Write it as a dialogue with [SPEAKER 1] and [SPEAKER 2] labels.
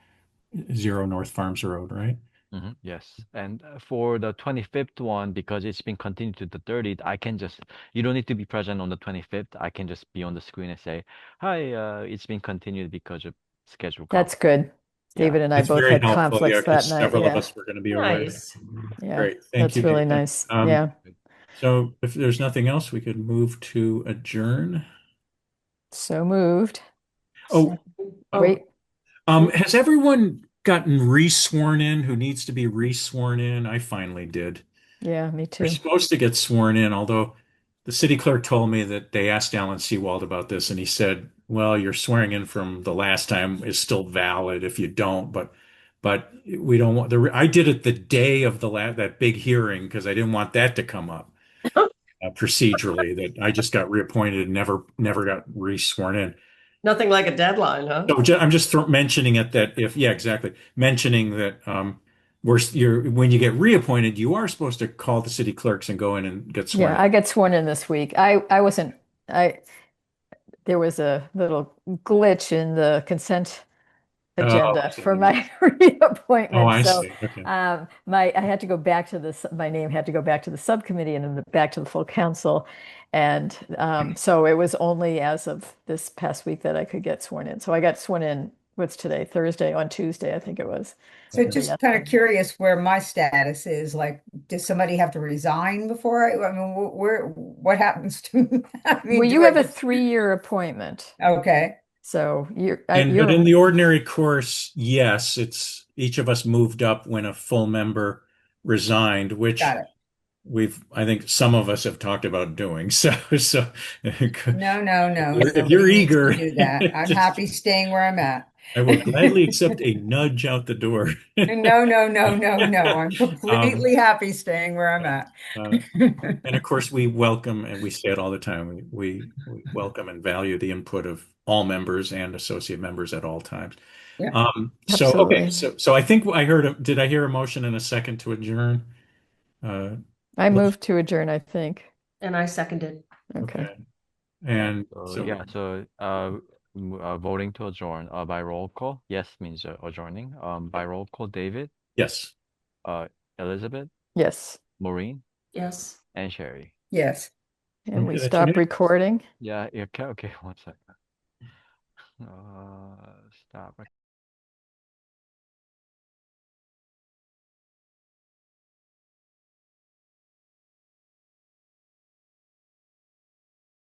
[SPEAKER 1] zero North Farms Road, right?
[SPEAKER 2] Mm-hmm.
[SPEAKER 3] Mhm, Yes, and uh, for the twenty-fifth one, because it's been continued to the thirtieth, I can just, you don't need to be present on the twenty-fifth. I can just be on the screen and say, hi, uh, it's been continued because of schedule.
[SPEAKER 2] That's good.
[SPEAKER 3] Yeah.
[SPEAKER 2] David and I
[SPEAKER 1] That's
[SPEAKER 2] both
[SPEAKER 1] very
[SPEAKER 2] had
[SPEAKER 1] helpful, yeah,
[SPEAKER 2] conflicts
[SPEAKER 1] 'cause
[SPEAKER 2] that night.
[SPEAKER 1] Several of
[SPEAKER 2] Yeah,
[SPEAKER 1] us were going to be away.
[SPEAKER 4] Nice.
[SPEAKER 2] yeah.
[SPEAKER 1] Great, thank
[SPEAKER 2] That's
[SPEAKER 1] you.
[SPEAKER 2] really
[SPEAKER 1] David.
[SPEAKER 2] nice.
[SPEAKER 1] Um,
[SPEAKER 2] Yeah.
[SPEAKER 1] So if there's nothing else, we could move to adjourn.
[SPEAKER 2] So moved.
[SPEAKER 1] Oh, oh,
[SPEAKER 2] Wait,
[SPEAKER 1] um, has everyone gotten re-sworn in who needs to be re-sworn in? I finally did.
[SPEAKER 2] yeah, me
[SPEAKER 1] You're
[SPEAKER 2] too.
[SPEAKER 1] supposed to get sworn in, although the city clerk told me that they asked Alan Seawald about this, and he said, "Well, your swearing in from the last time is still valid if you don't, but but we don't want the." I did it the day of the la that big hearing because I didn't want that to come up uh, procedurally. That I just got reappointed and never never got re-sworn in.
[SPEAKER 4] Nothing like a deadline, huh?
[SPEAKER 1] So ju- I'm just thro- mentioning it that if, yeah, exactly. Mentioning that um, we're, s- you're, when you get reappointed, you are supposed to call the city clerks and go in and get sworn.
[SPEAKER 2] Yeah, I got sworn in this week. I, I wasn't, I, there was a little glitch in the consent
[SPEAKER 1] Oh, I
[SPEAKER 2] agenda
[SPEAKER 1] see.
[SPEAKER 2] for my
[SPEAKER 1] Oh, I
[SPEAKER 2] reappointment. So
[SPEAKER 1] see. Okay.
[SPEAKER 2] Um, my, I had to go back to this, my name had to go back to the subcommittee and then the- back to the full council. And, um, so it was only as of this past week that I could get sworn in. So I got sworn in, what's today, Thursday, on Tuesday, I think it was.
[SPEAKER 5] So
[SPEAKER 2] Okay.
[SPEAKER 5] just kind of curious where my status is, like, does somebody have to resign before I, I mean, wh- where, what happens to? me? I mean,
[SPEAKER 2] Well,
[SPEAKER 5] do
[SPEAKER 2] you
[SPEAKER 5] I
[SPEAKER 2] have a
[SPEAKER 5] just-
[SPEAKER 2] three-year appointment,
[SPEAKER 5] Okay,
[SPEAKER 2] so you're, I-
[SPEAKER 1] And, but in
[SPEAKER 2] you're,
[SPEAKER 1] the ordinary course, yes, it's, each of us moved up when a full member resigned, which
[SPEAKER 5] got it.
[SPEAKER 1] we've, I think some of us have talked about doing. So, so.
[SPEAKER 5] No, no, no.
[SPEAKER 1] If
[SPEAKER 5] nobody
[SPEAKER 1] you're
[SPEAKER 5] needs to
[SPEAKER 1] eager,
[SPEAKER 5] Do that. I'm
[SPEAKER 1] just-
[SPEAKER 5] happy staying where I'm at.
[SPEAKER 1] I will gladly accept a nudge out the door.
[SPEAKER 5] No, no, no, no, no.
[SPEAKER 1] Um,
[SPEAKER 5] I'm completely happy staying where I'm at.
[SPEAKER 1] Uh, And of course, we welcome, and we say it all the time, we, we, we welcome and value the input of all members and associate members at all times.
[SPEAKER 5] Yeah.
[SPEAKER 1] Um, so, okay,
[SPEAKER 2] Absolutely.
[SPEAKER 1] so, so I think I heard, a- did I hear a motion and a second to adjourn? Uh,
[SPEAKER 2] I moved to adjourn, I think.
[SPEAKER 4] And I seconded.
[SPEAKER 2] Okay.
[SPEAKER 1] And
[SPEAKER 3] So,
[SPEAKER 1] so,
[SPEAKER 3] yeah, so, uh, m- uh, voting to adjourn, uh, by roll call, yes means uh, adjourning, um, by roll call, David,
[SPEAKER 1] yes,
[SPEAKER 3] uh, Elizabeth,
[SPEAKER 2] Yes,
[SPEAKER 3] Maureen,
[SPEAKER 4] Yes.
[SPEAKER 3] and Sherry.
[SPEAKER 5] Yes.
[SPEAKER 2] and
[SPEAKER 1] Okay,
[SPEAKER 2] we
[SPEAKER 1] that's
[SPEAKER 2] stop
[SPEAKER 1] unanimous.
[SPEAKER 2] recording.
[SPEAKER 3] Yeah, yeah, okay, okay, one second. Uh, stop.